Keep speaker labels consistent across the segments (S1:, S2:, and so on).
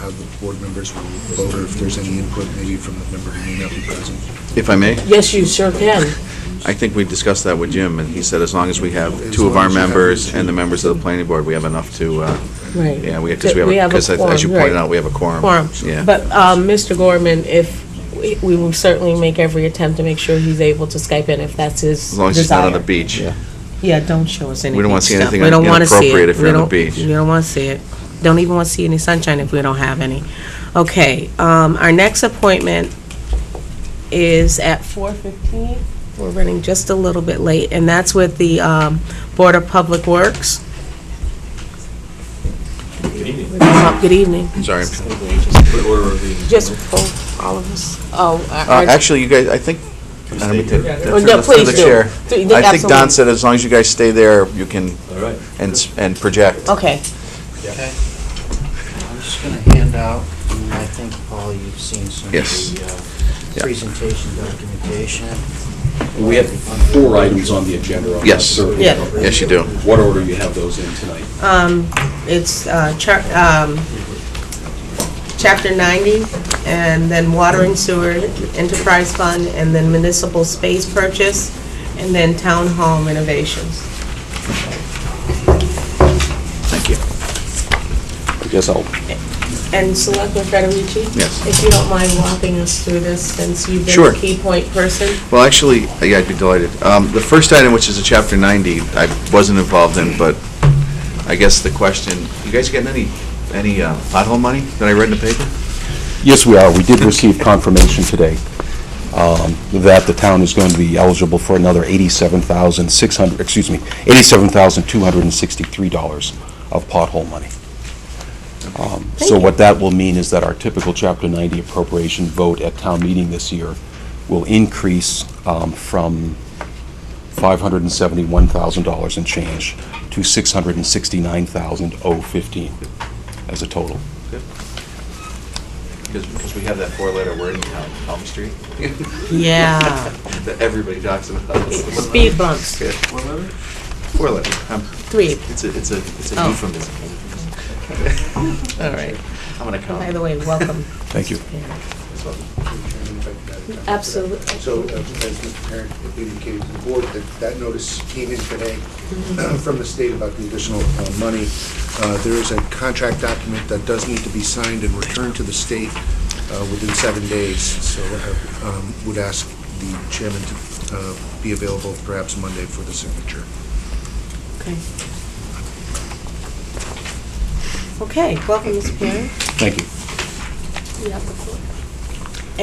S1: have the board members vote, or if there's any input maybe from the member who may not be present.
S2: If I may,
S3: Yes, you sure can.
S2: I think we discussed that with Jim, and he said as long as we have
S1: As
S2: two of
S1: long
S2: our
S1: as you have
S2: members
S1: two.
S2: and the members of the planning board, we have enough to, uh,
S3: Right.
S2: yeah, we, because
S3: That
S2: we have,
S3: a
S2: because as you
S3: quorum,
S2: pointed
S3: right.
S2: out, we have a quorum.
S3: Quorum.
S2: Yeah.
S3: But um, Mr. Gorman, if, we- we will certainly make every attempt to make sure he's able to Skype in if that's his
S2: As long as he's not on the
S3: desire.
S2: beach.
S4: Yeah, don't show us any
S2: We don't wanna
S4: beach
S2: see
S4: stuff.
S2: anything
S4: We don't wanna see it.
S2: inappropriate if
S4: We
S2: you're on the
S4: don't-
S2: beach.
S4: We don't want to see it. Don't even want to see any sunshine if we don't have any. Okay, um, our next appointment is at 4:15. We're running just a little bit late, and that's with the um, Board of Public Works. Good evening. Good evening.
S2: Sorry. Uh,
S4: Just for all of us. Oh, our-
S2: Uh, Actually, you guys, I think, I don't mean to-
S3: Oh,
S2: through
S3: No,
S2: the- through
S3: please
S2: the
S3: do.
S2: chair.
S3: Th-
S2: I think Don
S3: absolutely.
S2: said as long as you guys stay there, you can, and, s- and project.
S4: Okay,
S5: Okay. I'm just going to hand out, and I think, Paul, you've seen some of
S2: Yes.
S5: the
S2: Yeah.
S5: uh, presentation documentation.
S6: We have four items on the agenda. on
S2: Yes.
S6: that survey.
S4: Yeah.
S2: Yes, you do.
S6: What order you have those in tonight?
S4: um, it's, uh, char, um, chapter ninety, and then water and sewer enterprise fund, and then municipal space purchase, and then town hall renovations.
S2: Thank you.
S6: I guess I'll
S4: And Selectman Federici?
S2: Yes.
S4: If you don't mind walking us through this, since you've been
S2: Sure.
S4: the key point person.
S2: Well, actually, yeah, I'd be delighted. Um, The first item, which is a Chapter 90, I wasn't involved in, but I guess the question, you guys getting any, any uh, pothole money that I read in the paper?
S7: Yes, we are. We did receive confirmation today um, that the town is going to be eligible for another $87,600, excuse me, $87,263 of pothole money. Um, So
S4: Thank
S7: what that will mean is that our typical Chapter 90 appropriation vote at town meeting this year will increase um, from $571,000 and change to $669,015 as a total.
S2: Because, because we have that four-letter word in town, Elm Street,
S4: Yeah.
S2: that everybody talks about.
S4: Speed bumps,
S2: Four-letter. Um,
S4: three,
S2: It's a, it's a, it's a
S4: Oh.
S2: euphemism.
S4: all right.
S2: I'm gonna count.
S4: By the way, welcome.
S7: Thank you.
S4: Absolutely.
S1: So uh, as Mr. Parent had indicated to the board, that that notice came in today from the state about the additional uh, money. Uh, There is a contract document that does need to be signed and returned to the state uh, within seven days, so uh, um, would ask the chairman to uh, be available perhaps Monday for the signature.
S4: Okay. Okay, welcome, Mr. Perry.
S7: Thank you.
S4: You have the floor.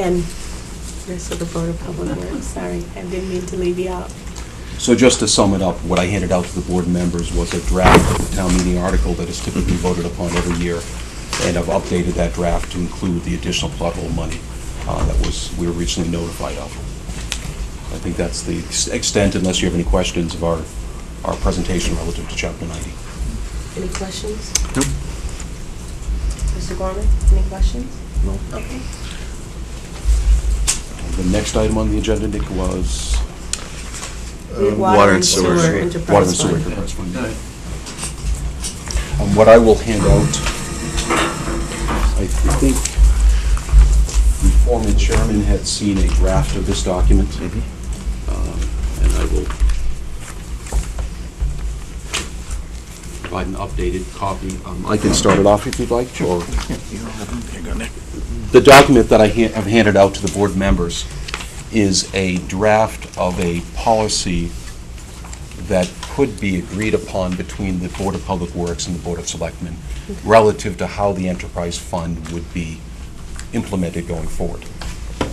S4: And this is the Board of Public Works, sorry, I didn't mean to leave you out.
S7: So just to sum it up, what I handed out to the board members was a draft of the town meeting article that is typically voted upon every year, and I've updated that draft to include the additional pothole money uh, that was, we were originally notified of. I think that's the ex- extent, unless you have any questions of our, our presentation relative to Chapter 90.
S4: Any questions?
S2: Nope.
S4: Mr. Gorman, any questions?
S2: No.
S4: Okay.
S7: The next item on the agenda, Nick, was
S4: The
S2: Uh, water and sewer.
S4: enterprise
S7: water and sewer.
S4: fund.
S7: enterprise fund. Um, What I will hand out, I think the former chairman had seen a draft of this document.
S4: Mm-hmm.
S7: Um, And I will provide an updated copy. Um, I can start it off if you'd like, or the document that I ha- have handed out to the board members is a draft of a policy that could be agreed upon between the Board of Public Works and the Board of Selectmen relative to how the enterprise fund would be implemented going forward.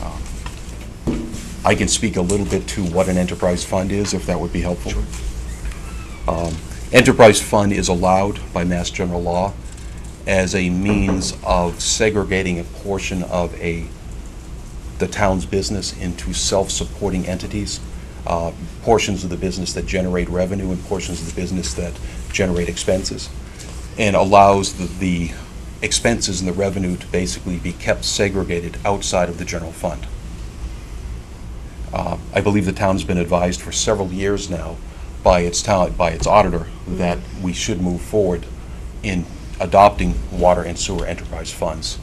S7: Um, I can speak a little bit to what an enterprise fund is, if that would be helpful. Um, Enterprise fund is allowed by Mass General Law as a means of segregating a portion of a, the town's business into self-supporting entities, uh, portions of the business that generate revenue and portions of the business that generate expenses, and allows the- the expenses and the revenue to basically be kept segregated outside of the general fund. Uh, I believe the town's been advised for several years now by its town, by its auditor, that we should move forward in adopting water and sewer enterprise funds.